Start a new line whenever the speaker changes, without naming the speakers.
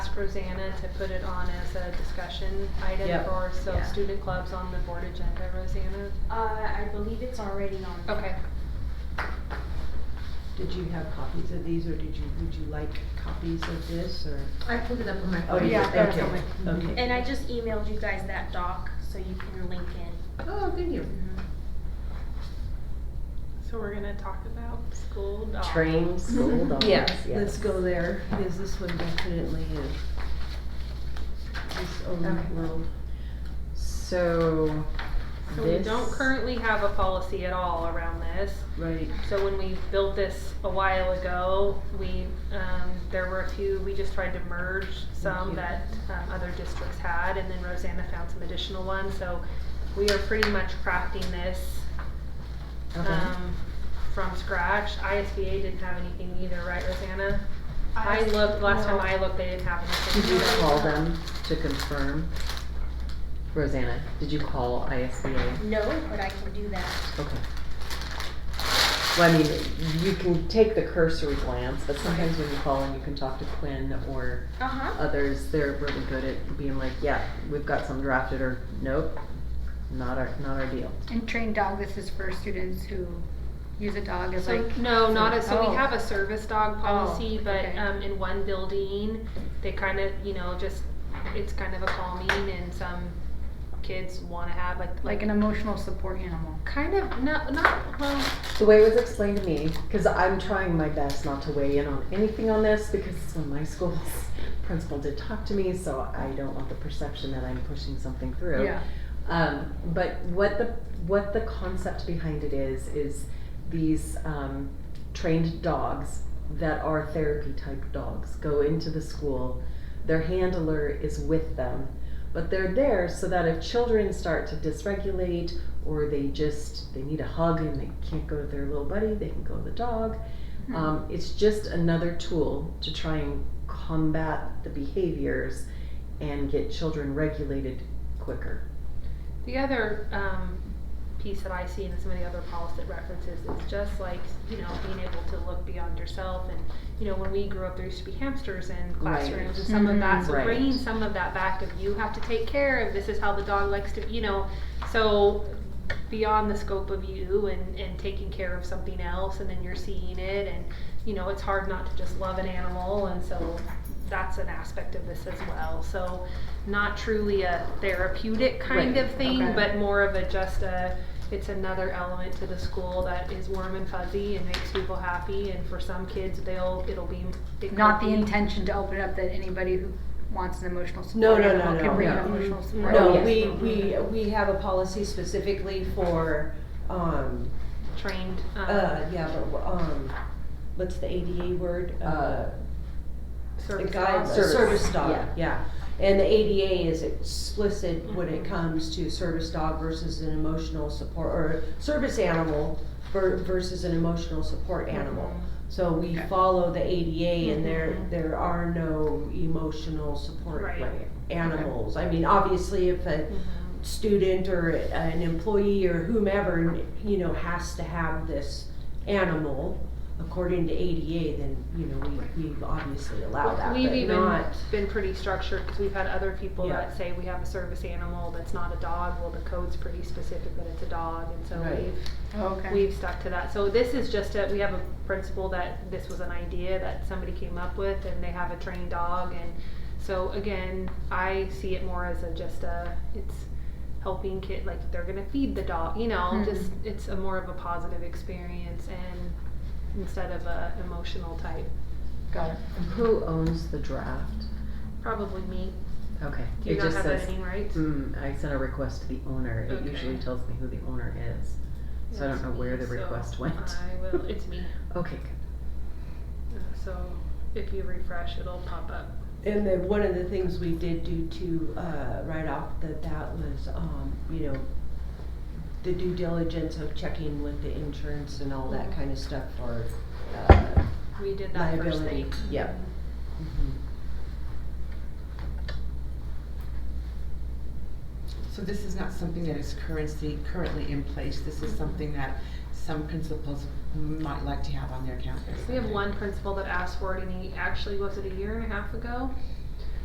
ask Rosanna to put it on as a discussion item
Yep.
for some
Yeah.
student clubs on the board agenda, Rosanna?
Uh, I believe it's already on.
Oh,
there.
Okay.
Did you have copies of these, or did you, would you like copies of this, or?
I pulled it up on my
Oh,
phone.
you
yeah,
did,
that's
okay,
on my-
okay.
And I just emailed you guys that doc, so you can link in.
Oh, good you.
So we're gonna talk about school dogs.
Train
Mm-hmm.
school dogs,
Yeah,
yes.
let's go there, because this one definitely is its
Okay.
own world.
So.
So we don't
this-
currently have a policy at all around this.
Right,
So when we built this a while ago, we, um, there were a few, we just tried to merge some
Thank you.
that, um, other districts had, and then Rosanna found some additional ones, so we are pretty much crafting this,
okay.
Uh,
um, from scratch. ISBA didn't have anything either, right, Rosanna? I looked, last time I looked, they didn't have anything.
Did you
either.
call them to confirm? Rosanna, did you call ISBA?
No, but I can do that.
Okay. Well, I mean, you can take the cursory glance, but sometimes when you call and you can talk to Quinn or
Uh-huh.
others, they're really good at being like, yeah, we've got some drafted or nope, not our, not our deal.
And trained dog, this is for students who use a dog as
So,
like.
no, not as, so
Oh.
we have a service dog policy, but,
okay.
um, in one building, they kind of, you know, just, it's kind of a calming and some kids wanna have like.
Like an emotional support animal.
Kind of, no, not, well,
The way it was explained to me, because I'm trying my best not to weigh in on anything on this, because it's when my school's principal did talk to me, so I don't want the perception that I'm pushing something through.
Yeah.
Um, but what the what the concept behind it is is these um, trained dogs that are therapy type dogs go into the school. Their handler is with them, but they're there so that if children start to dysregulate or they just they need a hug and they can't go to their little buddy, they can go to the dog.
Hmm.
Um, it's just another tool to try and combat the behaviors and get children regulated quicker.
the other, um, piece that I see in some of the other policy references is just like, you know, being able to look beyond yourself and, you know, when we grew up, there used to be hamsters in classrooms and some of
Mhm.
that, so
Right.
bringing some of that back of you have to take care of, this is how the dog likes to, you know, so beyond the scope of you and, and taking care of something else and then you're seeing it and, you know, it's hard not to just love an animal and so that's an aspect of this as well. So not truly a therapeutic kind
Right,
of thing,
okay.
but more of a just a it's another element to the school that is warm and fuzzy and makes people happy and for some kids they'll it'll be it
Not the
could be-
intention to open up that anybody who wants an emotional
No, no,
support
no,
animal
no,
can bring an
no.
Mm-hmm.
emotional support.
No,
yes.
we, we, we have a policy specifically for, um,
trained um,
uh, yeah, but, um, what's the ADA word? Uh, a
service
guide,
dogs.
Service.
service dog,
Yeah.
yeah. And the ADA is explicit when it comes to service dog versus an emotional support, or service animal ver- versus an emotional support animal.
Mm-hmm.
So we
Okay.
follow the ADA and there,
Mhm.
there are no emotional support
Right.
animals. I mean, obviously if a
Mhm.
student or an employee or whomever, you know, has to have this animal according to ADA, then, you know, we, we obviously allow that,
We've
but
even
not-
been pretty structured because we've had other people
Yeah.
that say we have a service animal that's not a dog. Well, the code's pretty specific that it's a dog, and so
Right.
we've
Oh, Okay.
We've stuck to that. So this is just a, we have a principle that this was an idea that somebody came up with and they have a trained dog and so again, I see it more as a just a, it's helping kid, like they're gonna feed the dog, you know,
Mhm.
just, it's a more of a positive experience and instead of a emotional type,
Got it.
Who owns the draft?
probably me.
Okay.
Do you
it
not
just
have
says,
that any rights?
mm, I sent a request to the owner. It
Okay.
usually tells me who the owner is. So I don't
It's
know where
me,
the
so
request went.
I will, it's me.
Okay. good.
Uh, So if you refresh, it'll pop up.
And then one of the things we did do to, uh, right off the bat was, um, you know, the due diligence of checking with the insurance and all
Mm-hmm.
that kind of stuff for, uh,
We did that first
Liability,
thing.
yep.
So this is not something that is currency, currently in place, this is something that some principals might like to have on their campus.
We have one principal that asked for it and he actually, was it a year and a half ago?